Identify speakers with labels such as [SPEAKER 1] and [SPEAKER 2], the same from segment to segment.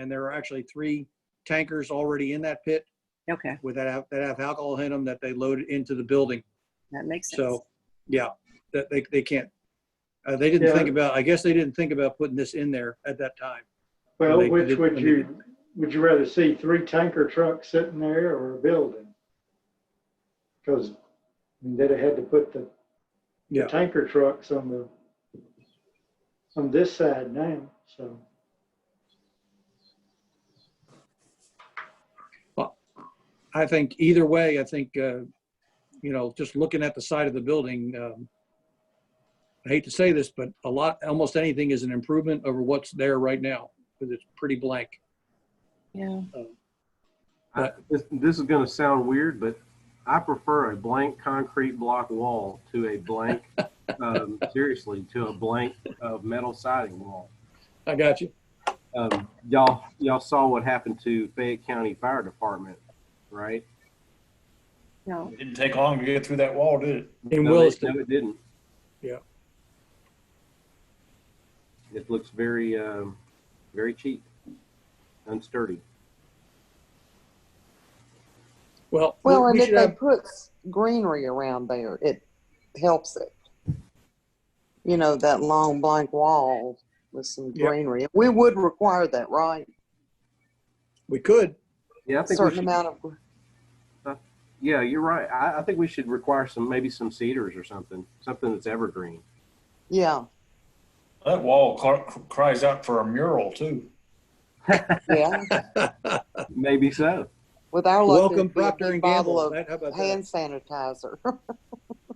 [SPEAKER 1] And there are actually three tankers already in that pit
[SPEAKER 2] Okay,
[SPEAKER 1] with that, have- that have alcohol in them that they loaded into the building.
[SPEAKER 2] that makes sense.
[SPEAKER 1] So, yeah, that they, they can't. Uh, they didn't think about, I guess they didn't think about putting this in there at that time.
[SPEAKER 3] Well,
[SPEAKER 1] They-
[SPEAKER 3] which
[SPEAKER 1] they-
[SPEAKER 3] would you, would you rather see three tanker trucks sitting there or a building? Because they'd have had to put the the
[SPEAKER 1] Yeah.
[SPEAKER 3] tanker trucks on the, on this side now, so.
[SPEAKER 1] I think either way, I think, uh, you know, just looking at the side of the building, um, I hate to say this, but a lot, almost anything is an improvement over what's there right now because it's pretty blank.
[SPEAKER 2] Yeah,
[SPEAKER 4] I- This, this is gonna sound weird, but I prefer a blank concrete block wall to a blank, um, seriously, to a blank, uh, metal siding wall.
[SPEAKER 1] I got you.
[SPEAKER 4] Um, y'all, y'all saw what happened to Fayette County Fire Department, right?
[SPEAKER 2] no,
[SPEAKER 5] It didn't take long to get through that wall, did it?
[SPEAKER 1] In
[SPEAKER 4] No, they-
[SPEAKER 1] Williston.
[SPEAKER 4] No, it didn't.
[SPEAKER 1] Yeah.
[SPEAKER 4] It looks very, um, very cheap, unsturdy.
[SPEAKER 1] Well, we-
[SPEAKER 6] Well, and
[SPEAKER 1] we
[SPEAKER 6] if
[SPEAKER 1] should
[SPEAKER 6] they
[SPEAKER 1] have,
[SPEAKER 6] put s- greenery around there, it helps it. You know, that long blank wall with some
[SPEAKER 1] Yep.
[SPEAKER 6] greenery. We would require that, right?
[SPEAKER 1] we could.
[SPEAKER 4] Yeah, I think we
[SPEAKER 6] Certain
[SPEAKER 4] should,
[SPEAKER 6] amount of, gr-
[SPEAKER 4] yeah, you're right. I, I think we should require some, maybe some cedars or something, something that's evergreen.
[SPEAKER 6] yeah,
[SPEAKER 5] That wall cl- cries out for a mural too.
[SPEAKER 6] yeah.
[SPEAKER 4] Maybe so.
[SPEAKER 6] With our luck,
[SPEAKER 1] Welcome
[SPEAKER 6] it'd be a
[SPEAKER 1] Procter and
[SPEAKER 6] big
[SPEAKER 1] Gamble.
[SPEAKER 6] bottle of
[SPEAKER 1] That- How about that?
[SPEAKER 6] hand sanitizer.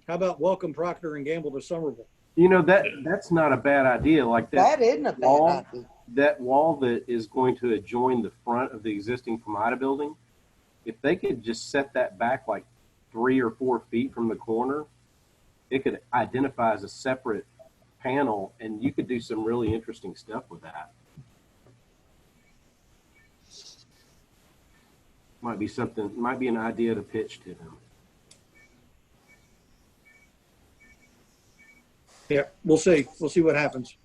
[SPEAKER 1] How about welcome Procter and Gamble to Somerville?
[SPEAKER 4] You know that that's not a bad idea. Like that
[SPEAKER 6] That isn't a bad
[SPEAKER 4] Wall.
[SPEAKER 6] idea.
[SPEAKER 4] that wall that is going to adjoin the front of the existing Pomada building. If they could just set that back like three or four feet from the corner, it could identify as a separate panel, and you could do some really interesting stuff with that. Might be something. Might be an idea to pitch to them.
[SPEAKER 1] Yeah, we'll see. We'll see what happens.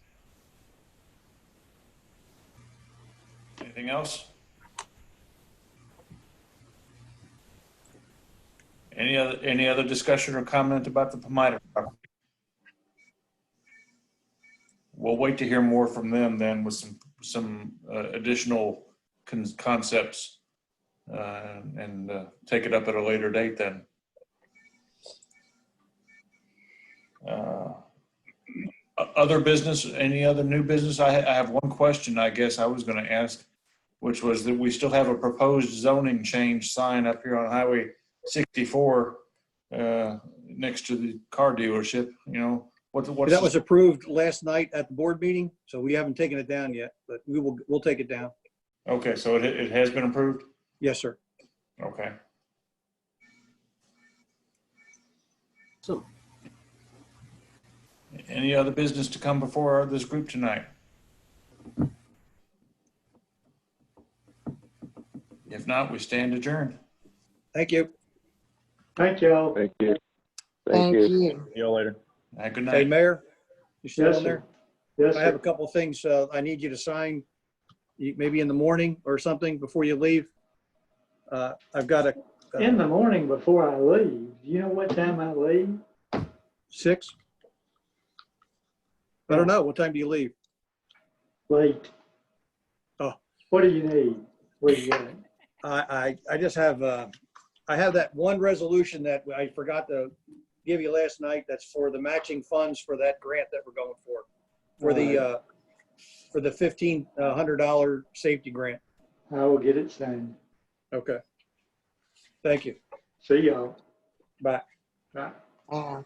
[SPEAKER 5] Anything else? Any other, any other discussion or comment about the Pomatum property? We'll wait to hear more from them then with some, some uh, additional con- concepts. uh, And uh, take it up at a later date then. Uh, other business, any other new business? I, I have one question, I guess I was gonna ask, which was that we still have a proposed zoning change sign up here on Highway sixty-four, uh, next to the car dealership, you know, what, what's?
[SPEAKER 1] That was approved last night at the board meeting, so we haven't taken it down yet, but we will, we'll take it down.
[SPEAKER 5] Okay, so it, it has been approved?
[SPEAKER 1] Yes, sir.
[SPEAKER 5] Okay.
[SPEAKER 4] So
[SPEAKER 5] Any other business to come before this group tonight? If not, we stand adjourned.
[SPEAKER 1] Thank you.
[SPEAKER 3] Thank y'all.
[SPEAKER 7] Thank you.
[SPEAKER 6] Thank you.
[SPEAKER 8] See y'all later.
[SPEAKER 5] Uh, Good
[SPEAKER 1] Hey,
[SPEAKER 5] night.
[SPEAKER 1] Mayor, you still
[SPEAKER 3] Yes,
[SPEAKER 1] on there?
[SPEAKER 3] Yes,
[SPEAKER 1] I have a
[SPEAKER 3] sir.
[SPEAKER 1] couple of things uh, I need you to sign, you- maybe in the morning or something before you leave. Uh, I've got a
[SPEAKER 3] In the morning before I leave, you know what time I leave?
[SPEAKER 1] six. I don't know. What time do you leave?
[SPEAKER 3] Late.
[SPEAKER 1] Oh.
[SPEAKER 3] What do you need? What do you got?
[SPEAKER 1] I, I, I just have, uh, I have that one resolution that I forgot to give you last night. That's for the matching funds for that grant that we're going for. For the, uh, for the fifteen uh, hundred dollar safety grant.
[SPEAKER 3] I will get it signed.
[SPEAKER 1] Okay. Thank you.
[SPEAKER 3] See y'all.
[SPEAKER 1] Bye.
[SPEAKER 3] Bye.
[SPEAKER 6] Yeah.